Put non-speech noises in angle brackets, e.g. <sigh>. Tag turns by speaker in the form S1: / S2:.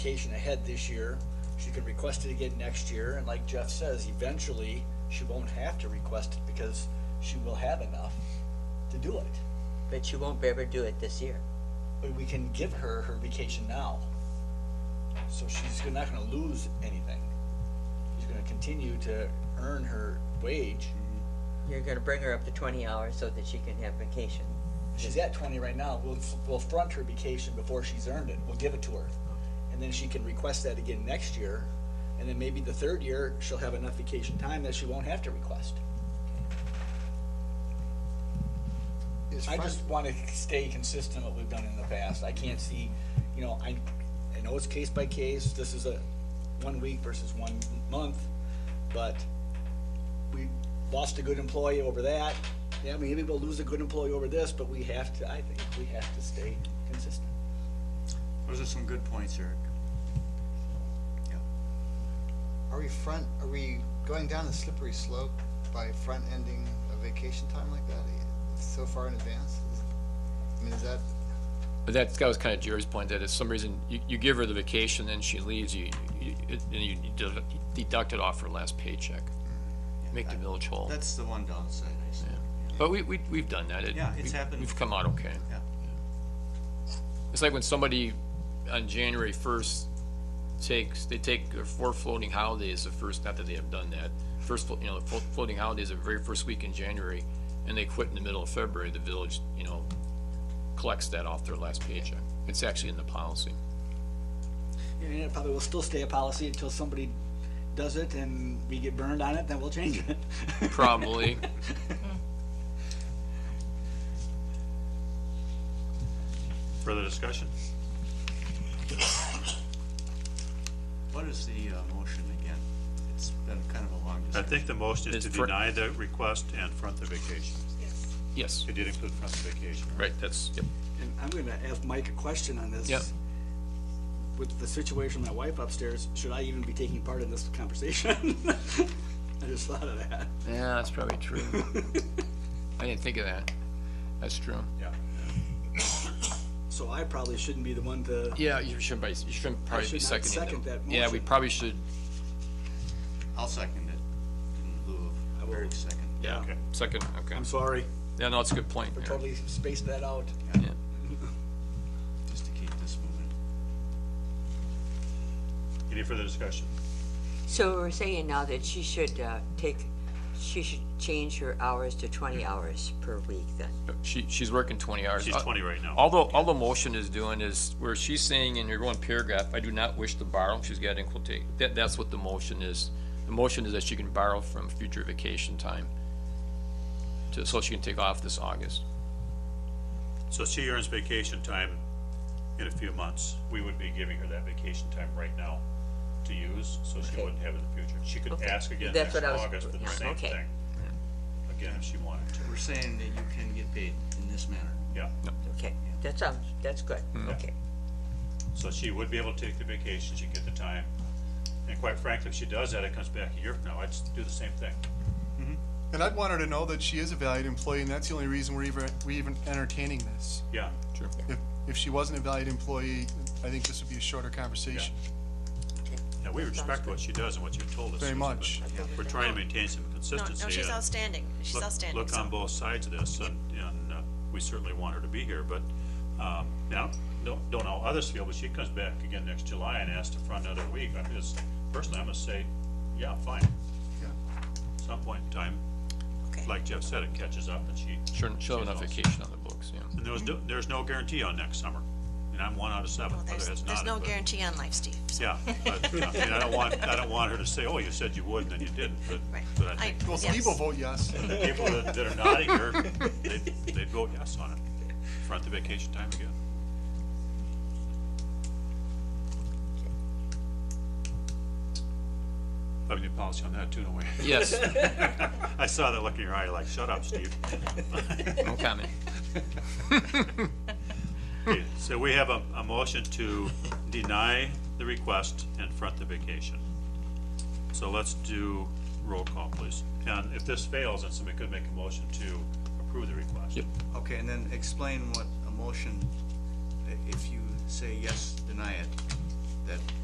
S1: vacation ahead this year. She can request it again next year, and like Jeff says, eventually, she won't have to request it because she will have enough to do it.
S2: But she won't be able to do it this year.
S1: But we can give her her vacation now. So she's not gonna lose anything. She's gonna continue to earn her wage.
S2: You're gonna bring her up to twenty hours so that she can have vacation.
S1: She's at twenty right now. We'll, we'll front her vacation before she's earned it. We'll give it to her. And then she can request that again next year. And then maybe the third year, she'll have enough vacation time that she won't have to request.
S3: Is
S1: I
S3: fin-
S1: just want to stay consistent what we've done in the past. I can't see, you know, I, I know it's case by case. This is a one week versus one month, but we lost a good employee over that. Yeah, maybe we'll lose a good employee over this, but we have to, I think we have to stay consistent.
S4: Those are some good points, Eric. Yeah.
S3: Are we front, are we going down a slippery slope by front ending a vacation time like that eh, so far in advance? Is- I mean, is that,
S5: But that's, that was kind of Jerry's point, that if some reason you, you give her the vacation, then she leaves, you, you, it- and you de- deduct it off her last paycheck. Make the village whole.
S4: That's the one downside, I see.
S5: Yeah. But we, we, we've done that. It-
S4: Yeah, it's
S5: we-
S4: happened.
S5: We've come out okay.
S4: Yeah.
S5: It's like when somebody on January first takes, they take their four floating holidays, the first, not that they have done that. First, flo- you know, the flo- floating holidays, the very first week in January, and they quit in the middle of February, the village, you know, collects that off their last paycheck. It's actually in the policy.
S1: And it probably will still stay a policy until somebody does it and we get burned on it, then we'll change it. <laughs>
S4: <laughs>
S5: Probably.
S6: Further discussion?
S4: What is the uh, motion again? It's been kind of a long
S6: I
S4: discussion.
S6: think the motion is
S5: It's
S6: to
S5: fr-
S6: deny the request and front the vacation.
S5: Yes,
S6: It did include front the vacation, right?
S5: right, that's, yep.
S1: And I'm gonna ask Mike a question on this.
S5: Yep.
S1: With the situation with my wife upstairs, should I even be taking part in this conversation? <laughs> I just thought of that.
S5: Yeah, that's
S4: <laughs>
S5: probably true. I didn't think of that. That's true.
S4: Yeah.
S1: So I probably shouldn't be the one to,
S5: Yeah, you shouldn't, be- you shouldn't probably
S1: should
S5: be
S1: not
S5: seconding.
S1: second
S5: them.
S1: that
S5: Yeah, we
S1: motion.
S5: probably should,
S4: I'll second it in lieu
S1: I
S4: of
S1: will.
S4: Eric's second.
S5: yeah,
S6: Okay.
S5: second, okay.
S1: I'm sorry,
S5: Yeah, no, it's a good point.
S1: for
S5: yeah.
S1: totally spaced that out.
S5: Yeah.
S4: Just to keep this moving.
S6: Any further discussion?
S2: So we're saying now that she should, uh, take, she should change her hours to twenty hours per week then.
S5: She, she's working twenty hours.
S6: She's
S5: Uh,
S6: 20 right now.
S5: Although, all the motion is doing is, where she's saying in her one paragraph, I do not wish to borrow, she's got in quotation, that, that's what the motion is. The motion is that she can borrow from future vacation time, to, so she can take off this August.
S6: So she earns vacation time in a few months. We would be giving her that vacation time right now to use, so she
S2: Okay.
S6: wouldn't have it in the future. She could
S2: Okay.
S6: ask again
S2: That's
S6: next
S2: what I was-
S6: August for the
S2: yeah,
S6: same
S2: okay.
S6: thing. Again, if she wanted to,
S4: We're saying that you can get paid in this manner.
S6: yeah.
S2: Okay, that sounds, that's good, okay.
S6: So she would be able to take the vacation, she'd get the time. And quite frankly, if she does that, it comes back a year from now, I'd s- do the same thing.
S7: And I'd want her to know that she is a valued employee, and that's the only reason we're even, we even entertaining this.
S6: Yeah,
S5: Sure.
S7: If, if she wasn't a valued employee, I think this would be a shorter conversation.
S6: yeah, we respect what she does and what you've told us.
S7: Very
S6: Susan,
S7: much.
S6: but We're trying to maintain some
S8: No,
S6: consistency.
S8: no, she's
S6: and
S8: outstanding. She's
S6: look-
S8: outstanding.
S6: Look um,
S8: so-
S6: on both sides of this, and, and uh, we certainly want her to be here, but, um, now, don't, don't know how others feel, but she comes back again next July and asks to front another week, I just, personally, I'm gonna say, yeah, fine. At Some point in time,
S8: Okay.
S6: like Jeff said, it catches up and she
S5: Sure, she'll have enough
S6: She's also-
S5: vacation on the books, yeah.
S6: And there was, no- there's no guarantee on next summer, and I'm one out of seven,
S8: Well,
S6: other
S8: There's,
S6: has
S8: there's
S6: not.
S8: no
S6: but-
S8: guarantee on life, Steve. so-
S6: Yeah, but, I mean, I don't want, I don't want her to say, oh, you said you would, and then you didn't, but,
S8: Right.
S6: but I think
S7: Well,
S8: yes.
S7: Steve will vote yes.
S6: the people that, that are nodding here, they'd, they'd vote yes on it. Front the vacation time again. I have a new policy on that too, don't we?
S5: Yes,
S6: <laughs> I saw that look in your eye, like, shut up, Steve.
S5: no comment.
S6: Okay, So we have a, a motion to deny the request and front the vacation. So let's do roll call, please. And if this fails, then somebody could make a motion to approve the request.
S5: Yep.
S4: Okay, and then explain what a motion, i- if you say yes, deny it, that